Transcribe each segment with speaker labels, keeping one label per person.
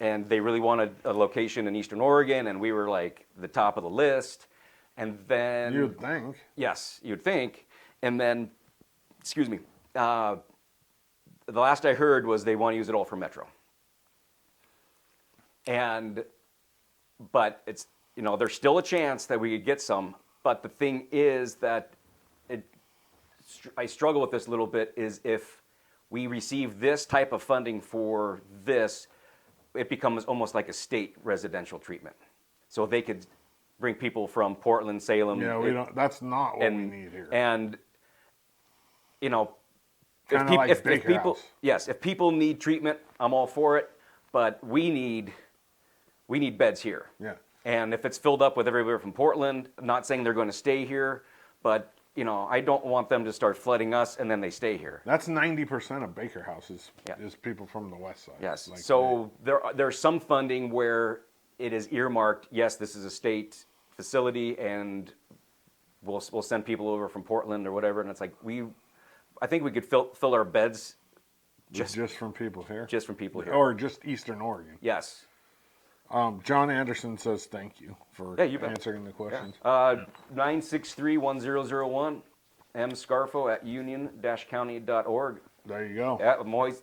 Speaker 1: and they really wanted a location in Eastern Oregon, and we were like the top of the list. And Mm, then
Speaker 2: You'd think.
Speaker 1: Yes, you'd think. And then, excuse me, uh, the last I heard was they want to use it all for Metro. And, but it's, you know, there's still a chance that we could get some. But the thing is that it, str- I struggle with this a little bit is if we receive this type of funding for this, it becomes almost like a state residential treatment. So they could bring people from Portland, Salem.
Speaker 2: Yeah, we
Speaker 1: it-
Speaker 2: don't. That's not what we
Speaker 1: and
Speaker 2: need here.
Speaker 1: and you know
Speaker 2: Kinda
Speaker 1: peop-
Speaker 2: like Baker
Speaker 1: people
Speaker 2: House.
Speaker 1: yes if people need treatment i'm all for it but we need we need beds here
Speaker 2: Yeah.
Speaker 1: and if it's filled up with everywhere from portland I'm not saying they're going to stay here but you know i don't want them to start flooding us and then they stay here
Speaker 2: That's ninety percent of Baker houses
Speaker 1: Yeah.
Speaker 2: is people from the west side.
Speaker 1: Yes.
Speaker 2: Like
Speaker 1: so there are, there's some funding where it is earmarked. Yes, this is a state facility, and we'll we'll send people over from Portland or whatever. And it's like we, I think we could fill fill our beds
Speaker 2: they- just, from people here,
Speaker 1: just from people here.
Speaker 2: or just Eastern Oregon.
Speaker 1: yes.
Speaker 2: Um, John Anderson says thank you for
Speaker 1: Yeah, you bet.
Speaker 2: answering the questions.
Speaker 1: Uh, nine six three one zero zero one, m scarfo at union-county.org.
Speaker 2: There you go.
Speaker 1: Yeah, I'm always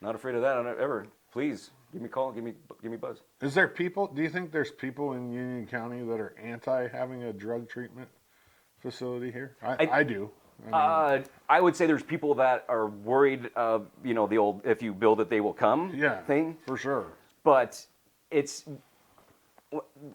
Speaker 1: not afraid of that ever. Please give me a call. Give me give me a buzz.
Speaker 2: Is there people? Do you think there's people in Union County that are anti having a drug treatment facility here? I, I,
Speaker 1: I-
Speaker 2: do. I mean,
Speaker 1: Uh, I would say there's people that are worried of you know the old if you build it they will come
Speaker 2: yeah,
Speaker 1: thing,
Speaker 2: for sure.
Speaker 1: but it's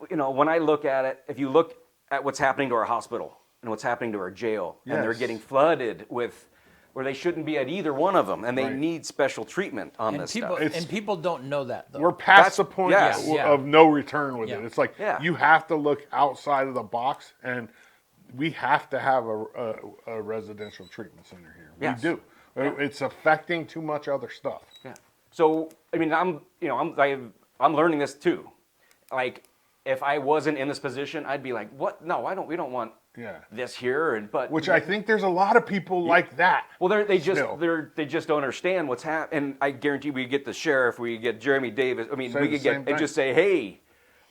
Speaker 1: you know when I look at it, if you look at what's happening to our hospital and what's happening to our jail, and they're
Speaker 2: Yes.
Speaker 1: getting flooded with where they shouldn't be at either one of them, and they
Speaker 2: Right.
Speaker 1: need special treatment on
Speaker 3: And
Speaker 1: this
Speaker 3: people
Speaker 1: stuff.
Speaker 2: It's-
Speaker 3: and people don't know that though.
Speaker 2: We're
Speaker 1: That's-
Speaker 2: past the point
Speaker 1: yes.
Speaker 2: of,
Speaker 3: Yeah.
Speaker 2: of no return with
Speaker 3: Yeah.
Speaker 2: it. It's like
Speaker 1: Yeah.
Speaker 2: you have to look outside of the box, and we have to have a, a, a residential treatment center here.
Speaker 1: Yes.
Speaker 2: We do. It- It's affecting too much other stuff.
Speaker 1: Yeah. So I mean, I'm you know I'm I, I'm learning this too. Like if I wasn't in this position, I'd be like, what? No, I don't. We don't want
Speaker 2: Yeah.
Speaker 1: this here. And but
Speaker 2: Which I think there's a lot of people like that.
Speaker 1: Well, they're, they just
Speaker 2: Still.
Speaker 1: they're, they just don't understand what's happening. And I guarantee we get the sheriff, we get Jeremy Davis. I mean,
Speaker 2: Say
Speaker 1: we
Speaker 2: the
Speaker 1: could get
Speaker 2: same
Speaker 1: and just say, hey,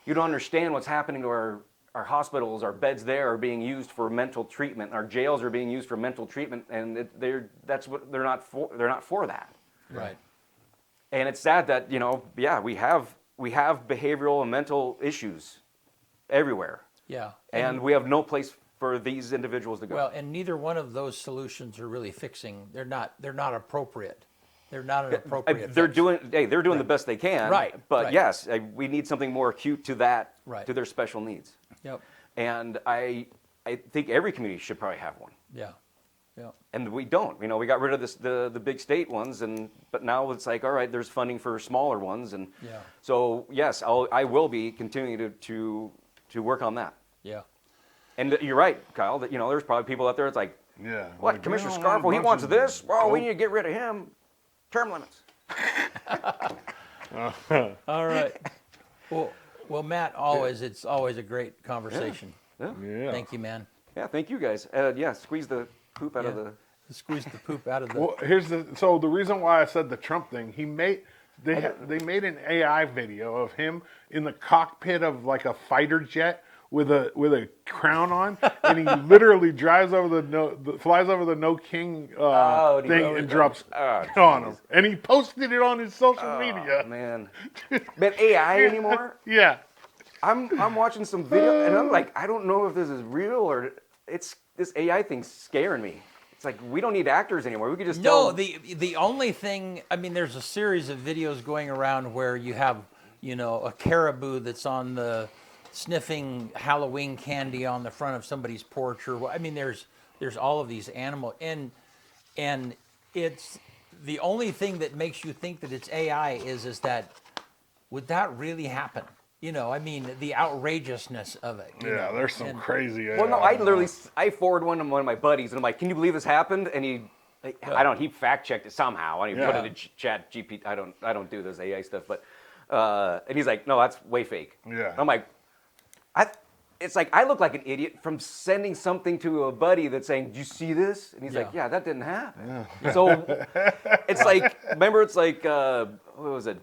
Speaker 1: you don't understand what's happening to our our hospitals. Our beds there are being used for mental treatment. Our jails are being used for mental treatment, and it, they're that's what they're not for. They're not for that.
Speaker 3: right.
Speaker 1: And it's sad that you know, yeah, we have we have behavioral and mental issues everywhere,
Speaker 3: Yeah.
Speaker 1: and we have no place for these individuals to go.
Speaker 3: Well, and neither one of those solutions are really fixing. They're not. They're not appropriate. They're not an
Speaker 1: I-
Speaker 3: appropriate.
Speaker 1: they're
Speaker 3: fix.
Speaker 1: doing hey they're doing the best they can
Speaker 3: Right,
Speaker 1: but
Speaker 3: right.
Speaker 1: yes I, we need something more acute to that
Speaker 3: Right.
Speaker 1: to their special needs
Speaker 3: Yep.
Speaker 1: and i i think every community should probably have one
Speaker 3: Yeah. Yeah.
Speaker 1: and we don't you know we got rid of this the the big state ones and but now it's like all right there's funding for smaller ones and
Speaker 3: Yeah.
Speaker 1: so yes i'll i will be continuing to to to work on that
Speaker 3: Yeah.
Speaker 1: and you're right kyle that you know there's probably people out there it's like
Speaker 2: Yeah.
Speaker 1: what
Speaker 2: like,
Speaker 1: commissioner
Speaker 2: we don't
Speaker 1: scarfo
Speaker 2: want a
Speaker 1: he
Speaker 2: bunch
Speaker 1: wants
Speaker 2: of-
Speaker 1: this well we
Speaker 2: Nope.
Speaker 1: need to get rid of him term limits
Speaker 3: All right. well, well, Matt. Always, it's always a great conversation.
Speaker 2: Yeah.
Speaker 3: Thank you, man.
Speaker 1: yeah thank you guys uh, yeah squeeze the poop out of
Speaker 3: Yeah.
Speaker 1: the
Speaker 3: Squeeze the poop out of the.
Speaker 2: Well, here's the so the reason why I said the Trump thing. He made they they made an AI video of him in the cockpit of like a fighter jet with a with a crown on, and he literally drives over the no the, flies over the no king uh,
Speaker 1: Oh, and he
Speaker 2: thing
Speaker 1: goes-
Speaker 2: and drops
Speaker 1: Oh,
Speaker 2: on him, and he posted it on his social media.
Speaker 1: Oh, man. But AI anymore?
Speaker 2: Yeah,
Speaker 1: I'm I'm watching some video and I'm like, I don't know if this is real or it's this AI thing's scaring me. It's like we don't need actors anymore. We could just tell-
Speaker 3: No, the the only thing I mean, there's a series of videos going around where you have you know a caribou that's on the sniffing Halloween candy on the front of somebody's porch, or wha- I mean, there's there's all of these animal and and it's the only thing that makes you think that it's AI is is that would that really happen? You know, I mean, the outrageousness of it. you
Speaker 2: yeah.
Speaker 3: know,
Speaker 2: There's some
Speaker 3: and-
Speaker 2: crazy.
Speaker 1: Well, no,
Speaker 2: AI.
Speaker 1: I literally s- I forward one to one of my buddies and I'm like, "Can you believe this happened?" And he like, I don't. He fact checked it somehow. I don't even
Speaker 2: Yeah.
Speaker 1: put it in Ch- Chat GPT. I don't. I don't do this AI stuff. But uh, and he's like, "No, that's way fake."
Speaker 2: Yeah.
Speaker 1: I'm like, I. It's like I look like an idiot from sending something to a buddy that's saying, "Do you see this?" And he's like,
Speaker 3: Yeah.
Speaker 1: "Yeah, that didn't happen." So it's like, remember, it's like, uh, what was it?